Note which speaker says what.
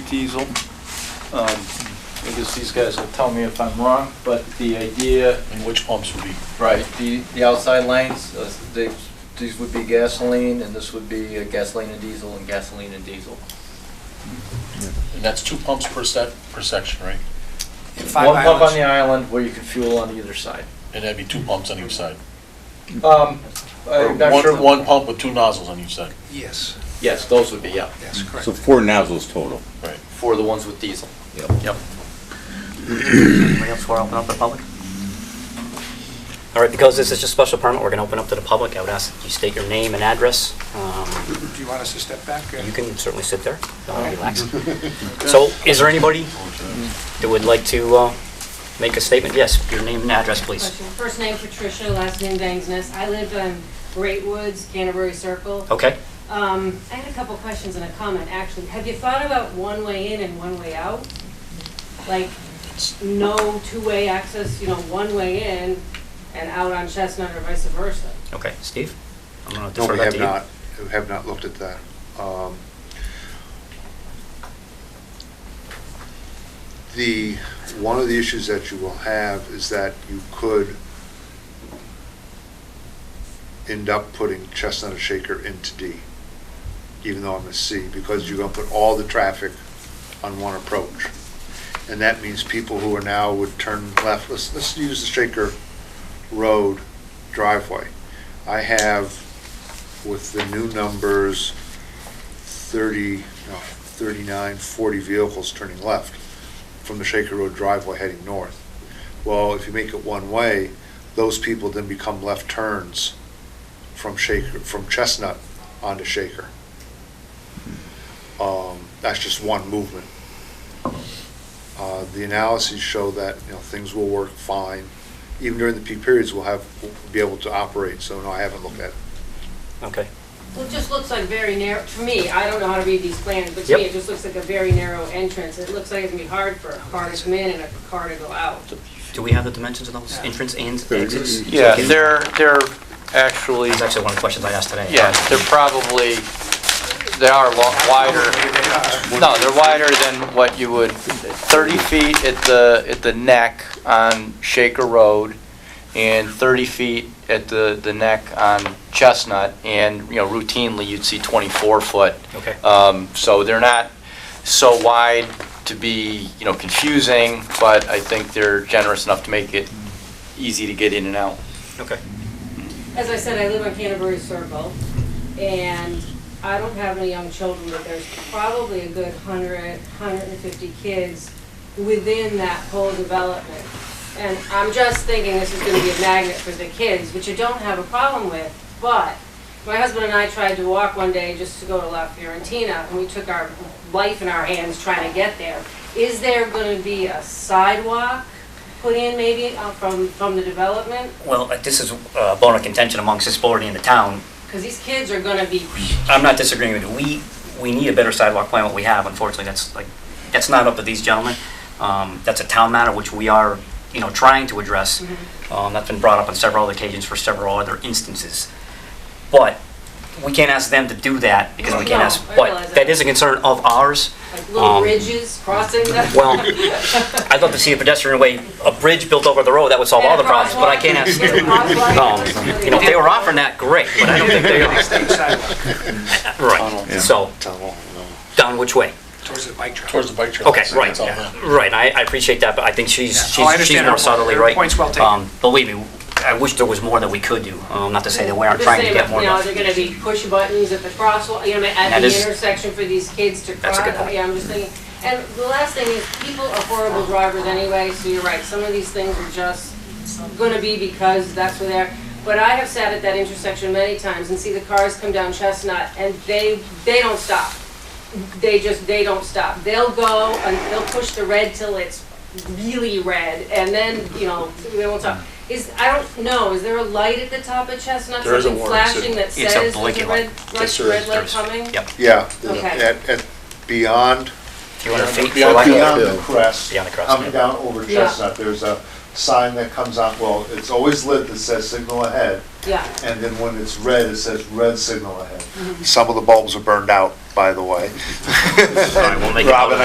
Speaker 1: Teasel. Um, I guess these guys will tell me if I'm wrong, but the idea,
Speaker 2: And which pumps would be,
Speaker 1: right, the, the outside lanes, uh, they, these would be gasoline, and this would be uh, gasoline and diesel, and gasoline and diesel.
Speaker 2: and that's two pumps per set, per section, right?
Speaker 3: Five
Speaker 1: One pump on
Speaker 3: islands.
Speaker 1: the island where you can fuel on either side.
Speaker 2: And that'd be two pumps on each side.
Speaker 1: Um,
Speaker 2: Or
Speaker 1: I'm not
Speaker 2: One,
Speaker 1: sure.
Speaker 2: one pump with two nozzles on each side,
Speaker 3: Yes,
Speaker 1: Yes, those would be, yeah,
Speaker 3: that's correct.
Speaker 4: Mm. So four nozzles total.
Speaker 2: right?
Speaker 1: for the ones with diesel.
Speaker 5: Anybody else want to open up to the public? All right, because this is just special permit, we're going to open up to the public. I would ask that you state your name and address. Um,
Speaker 3: Do you want us to step back? uh,
Speaker 5: You can certainly sit there, Uh, relax. So is there anybody that would like to uh, make a statement? Yes, your name and address, please.
Speaker 6: Question. First name Patricia, last name Bangsness. I live on Great Woods, Canterbury Circle.
Speaker 5: Okay,
Speaker 6: Um, I had a couple questions and a comment, actually. Have you thought about one way in and one way out? Like, no two-way access, you know, one way in and out on Chestnut or vice versa?
Speaker 5: okay, Steve? I'm going
Speaker 7: No,
Speaker 5: to defer
Speaker 7: we
Speaker 5: that
Speaker 7: have
Speaker 5: to you.
Speaker 7: not, we have not looked at that. Um, The, one of the issues that you will have is that you could end up putting Chestnut and Shaker into D, even though I'm a C, because you're gonna put all the traffic on one approach. And that means people who are now would turn left, let's, let's use the Shaker Road driveway. I have with the new numbers, 30, no, 39, 40 vehicles turning left from the Shaker Road driveway heading north. Well, if you make it one way, those people then become left turns from Shaker, from Chestnut onto Shaker. Um, That's just one movement. Uh, The analyses show that, you know, things will work fine. Even during the peak periods, we'll have, we'll be able to operate, so no, I haven't looked at it.
Speaker 5: Okay,
Speaker 6: Well, it just looks like very narrow, to me, I don't know how to read these plans, but to
Speaker 5: Yep.
Speaker 6: me, it just looks like a very narrow entrance. It looks like it's gonna be hard for a car to come in and a car to go out.
Speaker 5: do we have the dimensions of those entrance and exits?
Speaker 1: Yeah,
Speaker 5: Can-
Speaker 1: they're, they're actually,
Speaker 5: That's actually one of the questions I asked today.
Speaker 1: yeah, they're probably, they are lo- wider, no, they're wider than what you would, 30 feet at the, at the neck on Shaker Road, and 30 feet at the, the neck on Chestnut, and, you know, routinely, you'd see um, 24-foot.
Speaker 5: Okay.
Speaker 1: So they're not so wide to be, you know, confusing, but I think they're generous enough to make it easy to get in and out.
Speaker 5: Okay,
Speaker 6: as I said, I live on Canterbury Circle, and I don't have any young children, but there's probably a good 100, 150 kids within that whole development. And I'm just thinking this is going to be a magnet for the kids, which I don't have a problem with, but my husband and I tried to walk one day just to go to La Fiorentina, and we took our life in our hands trying to get there. Is there going to be a sidewalk put in maybe uh, from, from the development?
Speaker 5: well, uh, this is a bone of contention amongst this board and the town.
Speaker 6: Because these kids are gonna be,
Speaker 5: I'm not disagreeing with you. We, we need a better sidewalk plan, what we have, unfortunately, that's like, that's not up to these gentlemen. Um, that's a town matter which we are, you know, trying to address.
Speaker 6: Mm-hmm.
Speaker 5: Um, that's been brought up on several other occasions for several other instances. But we can't ask them to do that because we can't
Speaker 6: No,
Speaker 5: ask,
Speaker 6: I realize
Speaker 5: but
Speaker 6: that.
Speaker 5: that is a concern of ours.
Speaker 6: like,
Speaker 5: Um,
Speaker 6: little ridges crossing the.
Speaker 5: Well, I'd love to see a pedestrian way, a bridge built over the road, that would solve all the problems, but I can't ask
Speaker 6: And a
Speaker 5: them.
Speaker 6: crosswalk.
Speaker 5: Um, You know, if they were offering that, great, but I don't think they're gonna,
Speaker 3: State sidewalk
Speaker 5: right, so,
Speaker 7: Tunnel, no.
Speaker 5: down which way?
Speaker 3: towards the bike trail.
Speaker 2: Towards the bike trail.
Speaker 5: Okay,
Speaker 2: that's-
Speaker 5: right,
Speaker 2: that's all that.
Speaker 5: right, I, I appreciate that, but I think she's,
Speaker 3: Yeah. Oh, I
Speaker 5: she's, she's
Speaker 3: understand
Speaker 5: more
Speaker 3: her point.
Speaker 5: subtly
Speaker 3: Her
Speaker 5: right.
Speaker 3: point's well taken.
Speaker 5: Um, Believe me, I wish there was more that we could do, um, not to say that we aren't trying to get more
Speaker 6: You know,
Speaker 5: done.
Speaker 6: they're gonna be push buttons at the crosswalk, you know,
Speaker 5: That
Speaker 6: at the
Speaker 5: is-
Speaker 6: intersection for these kids to cross.
Speaker 5: That's a good point.
Speaker 6: Yeah, I'm just thinking, and the last thing is, people are horrible drivers anyway, so you're right, some of these things are just gonna be because that's where they're. But I have sat at that intersection many times and see the cars come down Chestnut, and they, they don't stop. they just, they don't stop. They'll go and they'll push the red till it's really red and then, you know, they won't stop.
Speaker 5: Mm-hmm.
Speaker 6: Is, I don't know, is there a light at the top of Chestnut,
Speaker 2: There is a
Speaker 6: something
Speaker 2: warning
Speaker 6: flashing that
Speaker 5: It's a
Speaker 6: says there's a
Speaker 5: blinking light.
Speaker 6: red,
Speaker 2: Yes,
Speaker 6: red,
Speaker 2: there is,
Speaker 6: red
Speaker 2: there
Speaker 6: light
Speaker 2: is.
Speaker 6: coming?
Speaker 5: Yep,
Speaker 7: Yeah, the-
Speaker 6: Okay.
Speaker 7: at, at, beyond,
Speaker 5: if you want to feet, for
Speaker 2: Beyond
Speaker 5: lack of-
Speaker 7: beyond the crest,
Speaker 5: Beyond the crest, yeah.
Speaker 7: coming down over
Speaker 6: Yeah.
Speaker 7: Chestnut, there's a sign that comes out, well, it's always lit that says signal ahead,
Speaker 6: Yeah,
Speaker 7: and then when it's red, it says red
Speaker 6: Mm-hmm.
Speaker 7: signal ahead. Some of the bulbs are burned out, by the way.
Speaker 5: All right, we'll make it.
Speaker 7: Robin,